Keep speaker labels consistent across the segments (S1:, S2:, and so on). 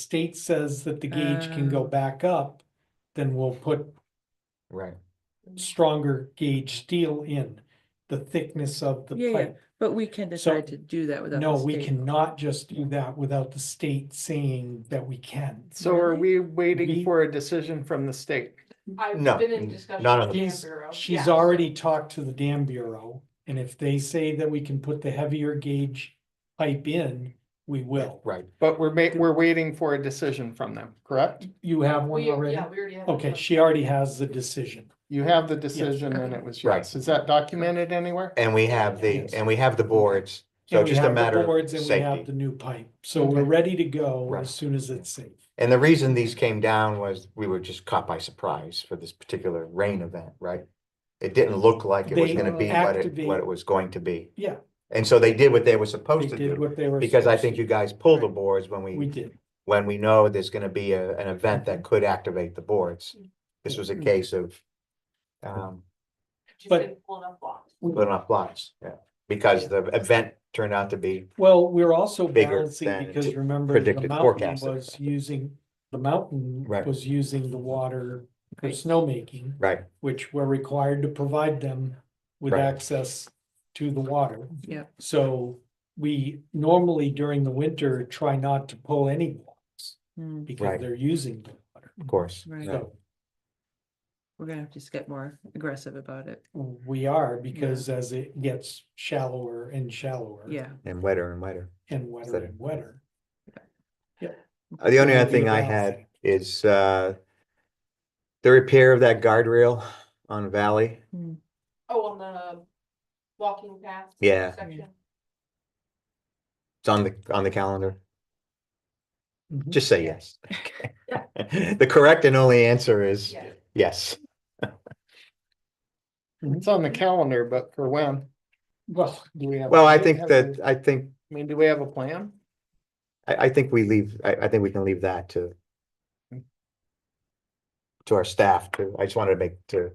S1: state says that the gauge can go
S2: Oh.
S1: back up, then we'll put
S3: Right.
S1: stronger gauge steel in the thickness of the
S2: Yeah, yeah.
S1: pipe.
S2: But we can
S1: So,
S2: decide to do that without.
S1: No,
S2: the
S1: we
S2: state.
S1: cannot just do that without the state saying that we can.
S4: So are
S2: Really?
S4: we waiting
S1: We-
S4: for a decision from the state?
S5: I've
S3: No,
S5: been in
S3: n-
S5: discussion
S3: none
S5: with
S3: of
S5: the Dam
S1: She's,
S5: Bureau.
S1: she's
S5: Yeah.
S1: already talked to the dam bureau, and if they say that we can put the heavier gauge pipe in, we will.
S3: Right.
S4: But we're ma- we're waiting for a decision from them, correct?
S1: You have one
S5: We,
S1: already?
S5: yeah, we already have.
S1: Okay, she already has the decision.
S4: You have the decision and it was
S3: Right.
S4: yes. Is that documented anywhere?
S3: And we have the,
S1: Yes.
S3: and we have the boards, so
S1: And we
S3: just a
S1: have the
S3: matter of
S1: boards and we have
S3: safety.
S1: The new pipe, so we're
S4: Okay.
S1: ready to go
S3: Right.
S1: as soon as it's safe.
S3: And the reason these came down was we were just caught by surprise for this particular rain event, right? It didn't look like it was
S1: They
S3: gonna be what it,
S1: activate-
S3: what it was going to be.
S1: Yeah.
S3: And so they did what they were
S1: They
S3: supposed to
S1: did
S3: do,
S1: what they were.
S3: because I
S1: supposed
S3: think
S1: to
S3: you guys pulled the
S1: Right.
S3: boards when
S1: do. We
S3: we,
S1: did.
S3: when we know there's gonna be a, an event that could activate the boards. This was a
S1: Mhm.
S3: case of, um,
S5: She's
S1: but-
S5: been pulling up blocks.
S3: putting off lots, yeah, because the event turned out to be
S1: Well, we're also
S3: Bigger
S1: balancing
S3: than
S1: because
S3: t-
S1: remember the
S3: predicted,
S1: mountain
S3: forecasted.
S1: was using, the mountain
S3: Right.
S1: was using the water for
S2: Right.
S1: snowmaking.
S3: right.
S1: which we're required to provide them with
S3: Right.
S1: access to the water.
S2: Yep.
S1: So we normally during the winter try not to pull any blocks
S2: Mm,
S1: because
S3: Right.
S1: they're using the water.
S3: Of course.
S2: Right.
S3: Yeah.
S1: So
S2: We're gonna have to just get more aggressive about it.
S1: we are because as it gets shallower and shallower.
S2: Yeah.
S3: And wetter and wetter.
S1: And wetter
S3: Said-
S1: and wetter.
S3: Uh, The only
S1: It'll
S3: other
S1: be
S3: thing I
S1: about-
S3: had is, uh, the repair of that guardrail on Valley.
S5: Oh, on the walking path.
S3: Yeah.
S5: section.
S1: Mm,
S3: It's on the, on the calendar.
S1: Mhm.
S4: Mm-hmm.
S3: Just say yes. The correct and only answer is
S5: Yeah.
S3: yes.
S4: It's on the calendar, but for when?
S1: Well,
S4: Do we have? a
S3: Well, I
S4: date?
S3: think
S4: Have
S3: that,
S4: we-
S3: I think,
S4: I mean, do we have a plan?
S3: I, I think we leave, I, I think we can leave that to
S4: Hmm.
S3: to our staff to, I just wanted to make, to,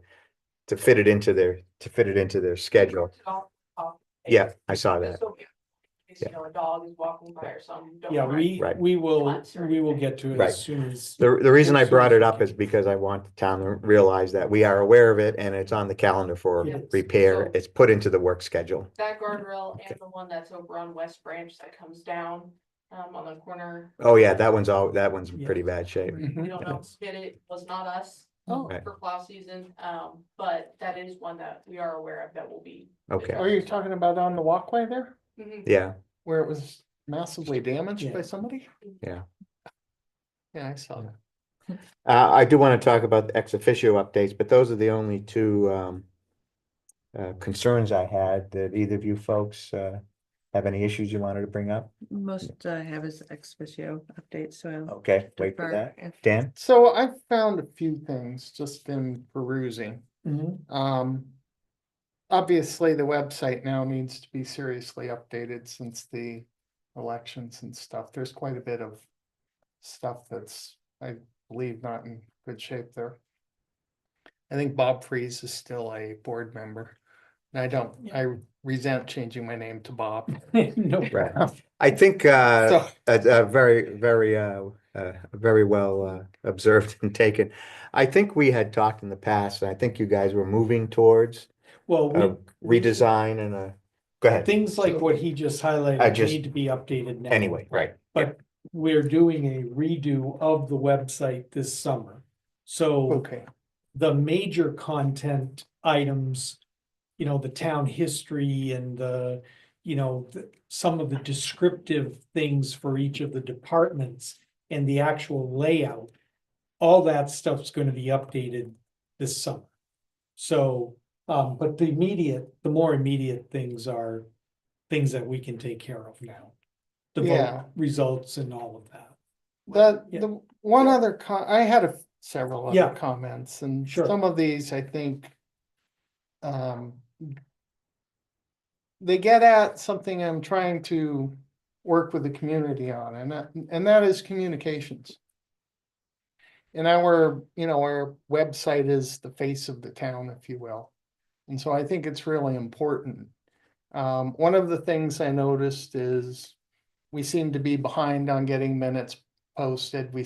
S3: to fit it into their, to fit it into their schedule.
S5: Off- off.
S3: Yeah, I saw
S5: Just
S3: that.
S5: so- in case, You know, a dog is walking by or something. don't
S1: yeah,
S5: mind.
S1: we,
S3: Right.
S1: we will,
S5: Lots or
S1: we will
S5: anything.
S1: get to it
S3: Right.
S1: as soon as.
S3: The, the reason I
S1: Yes,
S3: brought
S1: yes.
S3: it up is because I want the town to realize that we are aware of it and it's on the calendar for
S1: Yes.
S3: repair.
S5: So-
S3: It's put into the work schedule.
S5: That guardrail
S3: Okay.
S5: and the one that's over on West Branch that comes down, um, on the corner.
S3: Oh, yeah, that one's all, that one's in pretty
S1: Yeah.
S3: bad shape.
S5: We don't know, who did it, was not us.
S2: Oh.
S3: Right.
S5: For plow season, um, but that is one that we are aware of that will be.
S3: Okay,
S4: Are you talking about on the walkway there
S5: Mhm.
S3: yeah,
S4: where it was massively damaged
S1: Yeah.
S4: by somebody?
S3: Yeah.
S4: Yeah, I saw that.
S3: uh, I do want to talk about the ex officio updates, but those are the only two, um. Uh, concerns I had that either of you folks, uh, have any issues you wanted to bring up?
S2: Most I have is ex officio updates, so. I'll
S3: Okay, Oh, wait for
S2: defer
S3: that.
S2: if-
S3: Dan?
S4: So I found a few things just in perusing.
S1: Mhm.
S4: Um. Obviously, the website now needs to be seriously updated since the elections and stuff. There's quite a bit of. Stuff that's, I believe, not in good shape there. I think Bob Freeze is still a board member. And I don't, I resent changing my name to Bob.
S1: No
S3: Right.
S1: problem.
S3: I think, uh.
S4: So,
S3: Uh, uh, very, very, uh, uh, very well, uh, observed and taken. I think we had talked in the past, and I think you guys were moving towards
S1: Well, we
S3: a redesign and a, go ahead.
S1: Things like what he just highlighted
S3: just-
S1: need to be updated now.
S3: Anyway, right,
S1: We're doing a redo of the website this summer.
S3: Oh,
S1: So
S4: okay,
S1: the major content items, you know, the town history and the, you know, the- some of the descriptive things for each of the departments and the actual layout, all that stuff's gonna be updated this summer. So, um, but the immediate, the more immediate things are things that we can take care of now. The vote
S4: Yeah.
S1: results and all of that.
S4: the,
S1: Yeah.
S4: the, one other con, I had a, several
S1: Yeah.
S4: other comments and
S1: Sure.
S4: some of these, I think. Um. They get at something I'm trying to work with the community on and that, and that is communications. And our, you know, our website is the face of the town, if you will. And so I think it's really important. Um, one of the things I noticed is we seem to be behind on getting minutes posted, we